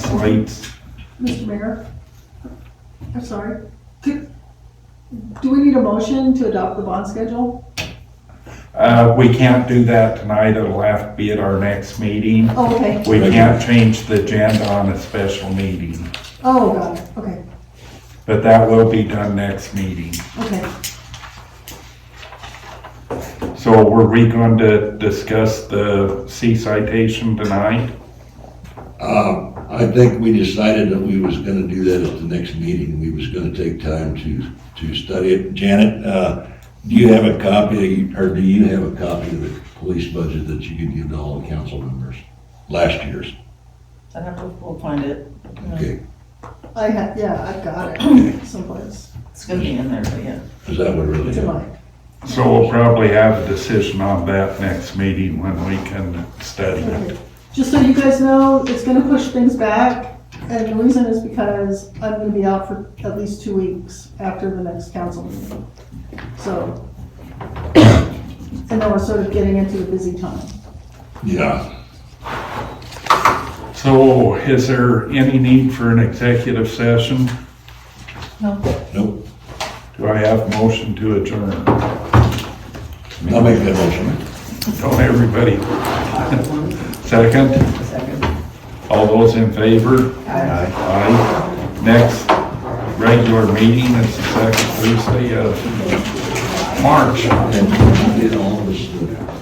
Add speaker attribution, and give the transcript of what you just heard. Speaker 1: translates
Speaker 2: Mr. Mayor? I'm sorry. Do do we need a motion to adopt the bond schedule?
Speaker 1: Uh, we can't do that tonight, it'll have to be at our next meeting.
Speaker 2: Oh, okay.
Speaker 1: We can't change the agenda on a special meeting,
Speaker 2: Oh, got it. Okay,
Speaker 1: but that will be done next meeting.
Speaker 2: okay.
Speaker 1: So were we going to discuss the C citation tonight?
Speaker 3: Um, I think we decided that we was gonna do that at the next meeting. We was gonna take time to, to study it. Janet, uh, do you have a copy, or do you have a copy of the police budget that you could give to all the council members? Last year's,
Speaker 4: I'd have to, we'll find it. Yeah.
Speaker 3: okay.
Speaker 2: I had, yeah, I've got it someplace.
Speaker 4: It's gonna be in there, but yeah.
Speaker 3: Is that what really
Speaker 2: It's in
Speaker 3: happened?
Speaker 2: mine.
Speaker 1: So we'll probably have a decision on that next meeting when we can study it.
Speaker 2: Okay. Just so you guys know, it's gonna push things back. And the reason is because I'm gonna be out for at least two weeks after the next council meeting. So. And then we're sort of getting into the busy time.
Speaker 3: Yeah,
Speaker 1: So is there any need for an executive session?
Speaker 4: No,
Speaker 3: nope.
Speaker 1: Do I have motion to adjourn?
Speaker 3: I'll make that motion.
Speaker 1: Don't everybody. Second?
Speaker 4: second.
Speaker 1: All those in favor?
Speaker 4: Aye.
Speaker 1: Aye. Next regular meeting is the second Tuesday of March.
Speaker 3: And did all this, uh,